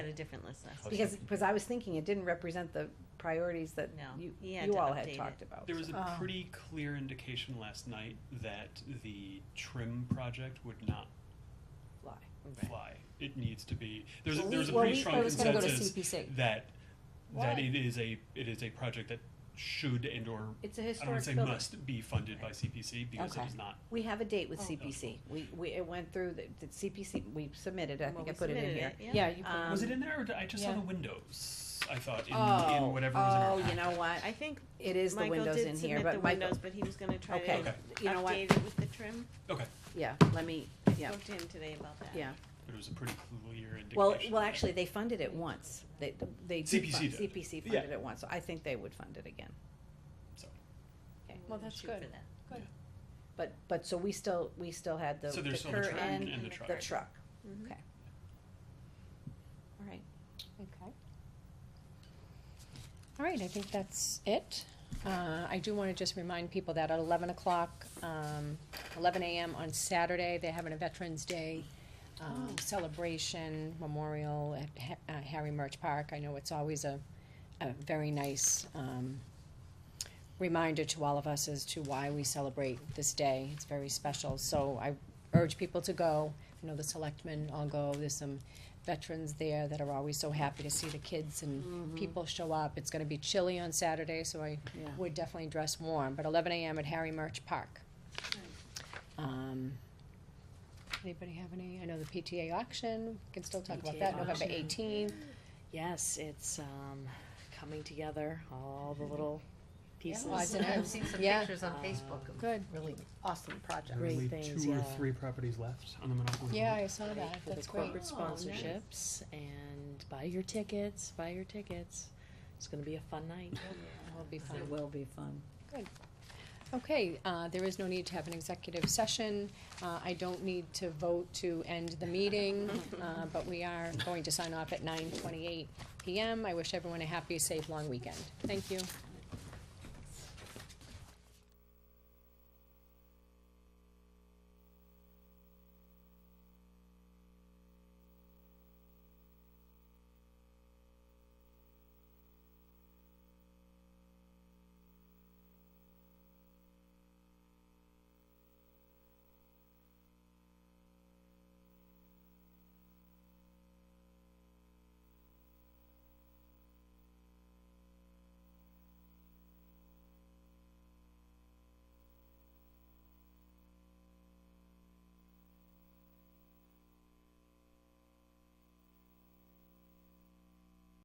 a different list last Okay. week. Because, because I was thinking it didn't represent the priorities that No. you, He had you to all update had it. talked about. There was so. a Oh. pretty clear indication last night that the trim project would not Lie. fly. It needs to be, there's, a- Well, there's a we- well, pretty we- strong it was gonna go to consensus CPC. that, that What? it is a, it is a project that should and or, It's a I don't wanna historic say building. must be funded by CPC because it Okay. is not. We have a date with Oh. CPC. We, we, it went through, the the CPC, we submitted, I Well, think we I put it in submitted here. it, yeah. Yeah, you Um, Was it in there or did I just saw yeah. the windows? I thought in, Oh, in whatever was in our Oh, you packet. know what? I think It is the Michael windows did in submit here, the but Michael, windows, but he was gonna try to okay, update Okay. you know what? it with the trim. Okay, Yeah, let me, I yeah, Spoke to him today about that. yeah. but it was a pretty clear indication. Well, well, that- actually, they funded it once. They, they did CPC fund, did. CPC Yeah. funded it once, so I think they would fund it again. so- We're Well, gonna that's shoot good. for that. Good. But, but, so we still, we still had the, So the there's still the cur train and and the truck. the truck. Mhm. Okay. All right. Okay. All right, I think that's it. Uh, I do wanna just remind people that at eleven o'clock, um, eleven AM on Saturday, they're having a Veterans Day, um, celebration memorial at Ha- uh, Harry Murch Park. I know it's always a, a very nice, um, reminder to all of us as to why we celebrate this day. It's very special, so I urge people to go. I know the selectmen all go, there's some veterans there that are always so happy to see the kids and Mm-hmm. people show up. It's gonna be chilly on Saturday, so I Yeah. would definitely dress warm, but eleven AM at Harry Murch Park. Um, anybody have any, I know the PTA auction, we can still talk about PTA that, November auction. eighteenth. Yes, it's um, coming together, all the little pieces. was in Um, it. I've seen some Yeah. pictures on Facebook of Good, really awesome projects. Great Only things, Two or yeah. three properties left on the Monopoly. yeah, Board. I saw that, For the that's great. Oh, corporate sponsorships and buy your tickets, buy your tickets. It's gonna be a fun night. Will Oh, be fun. will be fun. Okay, uh, there is no need to have an executive session. Uh, I don't need to vote to end the meeting, uh, but we are going to sign off at nine twenty-eight PM. I wish everyone a happy, safe, long weekend. Thank you.